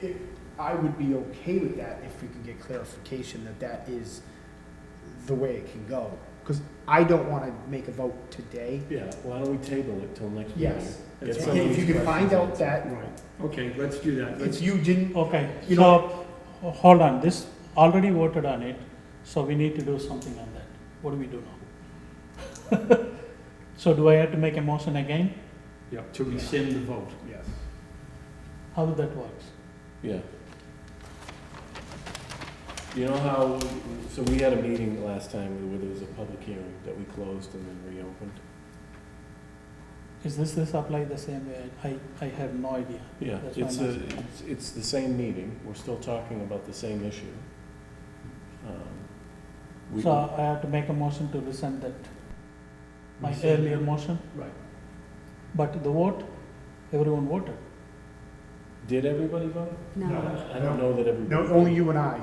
it, I would be okay with that if we could get clarification that that is the way it can go. Because I don't want to make a vote today. Yeah, why don't we table it till next meeting? Yes. Get That's some of If you these can find out questions that Right, okay, let's do that. it's Let's, you didn't, Okay, You so, ho- hold on, this, already voted on it, so we need to do something on that. What do we do now? So do I have to make a motion again? yeah, to rescind the vote. yes, How that works? answered. Yeah. You know how, so we had a meeting last time where there was a public hearing that we closed and then reopened? Is this, this apply the same way? I, I have no idea. Yeah, That's it's why a, I'm asking. it's- it's the same meeting, we're still talking about the same issue. Um, we- So I have to make a motion to rescind that, my Rescind. earlier motion, Right, but the vote, everyone voted. Did everybody vote? No. I don't know that everybody. no, only you and I.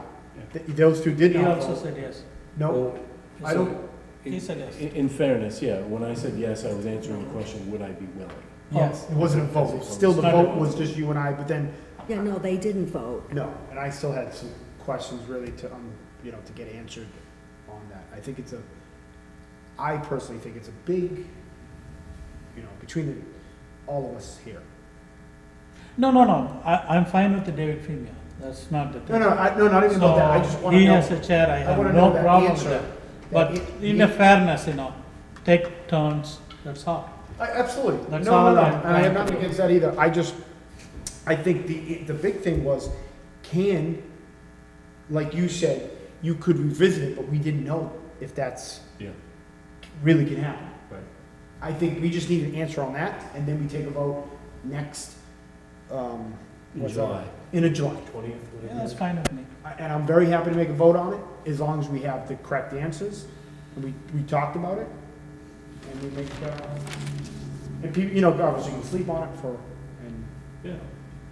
Th- Those two did He not also vote. said yes. No, Well, I so don't- in- He said yes. In in fairness, yeah, when I said yes, I was answering the question, would I be willing? Yes. it wasn't a vote. Still, the vote was just you and I, but then, Yeah, no, they didn't vote. no. And I still had some questions really to, um, you know, to get answered on that. I think it's a, I personally think it's a big, you know, between the, all of us here. No, no, no, I, I'm fine with the David Femia, that's not the. No, no, I, no, not even about that. I just So, wanna he know. as a chair, I I have wanna no know that problem with answer. that. that But it- in a fairness, you know, take turns, that's all. I- Absolutely. No, That's no, all no, I'm- and I have nothing against that either. I just, I think the, the big thing was, can, like you said, you could revisit it, but we didn't know if that's Yeah. really can happen. Right. I think we just need an answer on that, and then we take a vote next, um. In what's that? July. In a July. Twentieth, Yeah, that's fine with me. I- And I'm very happy to make a vote on it, as long as we have the correct answers, and we, we talked about it, and we make, uh, and people, you know, obviously you can sleep on it for, and. Yeah.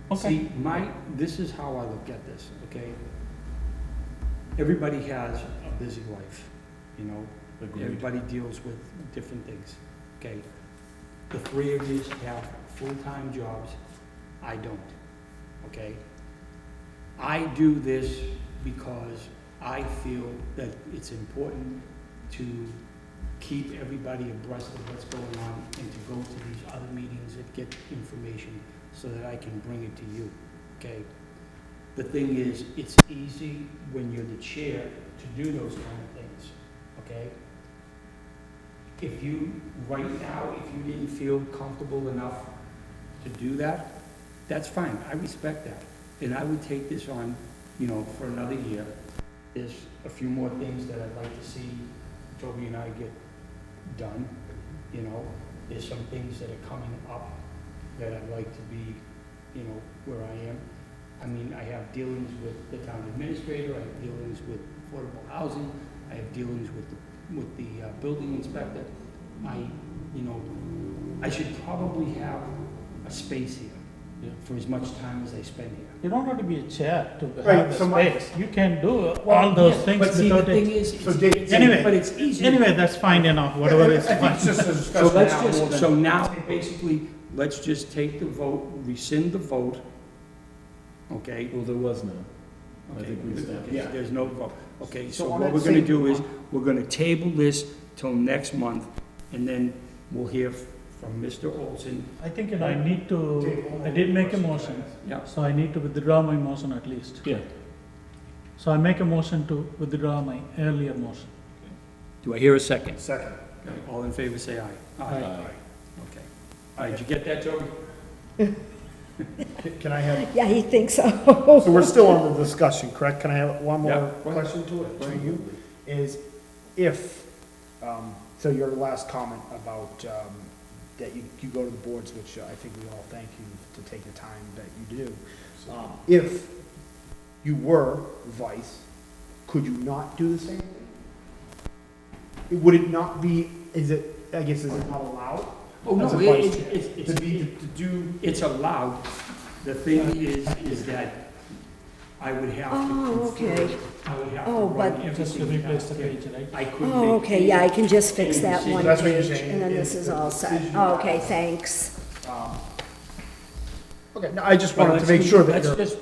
Okay, See, my, this is how I look at this, okay? Everybody has a busy life, you know? Agreed. Everybody deals with different things, okay? The three of you have full-time jobs, I don't, okay? I do this because I feel that it's important to keep everybody abreast of what's going on and to go to these other meetings and get information so that I can bring it to you, okay? The thing is, it's easy when you're the chair to do those kind of things, okay? If you, right now, if you didn't feel comfortable enough to do that, that's fine, I respect that. And I would take this on, you know, for another year. There's a few more things that I'd like to see Toby and I get done, you know? There's some things that are coming up that I'd like to be, you know, where I am. I mean, I have dealings with the town administrator, I have dealings with affordable housing, I have dealings with, the- with the uh, building inspector. I, you know, I should probably have a space Yeah. here for as much time as I spend here. you don't have to be a chair to Right, have the so my- space, you can do all Well, those yes, things without But see, the thing it. is, So it's- Dave- it's, Anyway, but it's easy. Anyway, that's fine enough, whatever is I think fine. it's just a So discussion let's now more just, than- so now, basically, let's just take the vote, rescind the vote, okay? Well, there was none. I Okay, think we established. yeah, there's no vote. Okay, so So on what that we're gonna same- do is, we're gonna table this till next month, and then we'll hear f- from Mr. Olson. I think, you know, I need to, I did make a motion, Yeah, so I need to withdraw my motion at least. Yeah, So I make a motion to withdraw my earlier motion. do I hear a second? Second. All in favor, say aye. Aye. Okay. All right, did you get that, Toby? Can- Can I have, Yeah, he thinks so. so we're still on the discussion, correct? Can I have one Yeah. more question to it, to you? Is if, um, so your last comment about, um, that you, you go to the boards, which I think we all thank you to take the time that you do. Um, If you were vice, could you not do the same thing? Would it not be, is it, I guess, is it not allowed? Oh, no, As a it- vice it- chair. it's, To it's, be, to do, it's allowed. The thing is, is that I would have to. Oh, okay. consider- I would have to Oh, run but- Just to everything replace the past him. page, right? I couldn't. Oh, make okay, yeah, I can just fix that one That's what you're page, saying and then is this is the all set. decision- Oh, Okay, thanks. um, okay, no, I just But wanted to let's make do- sure that Let's you're, just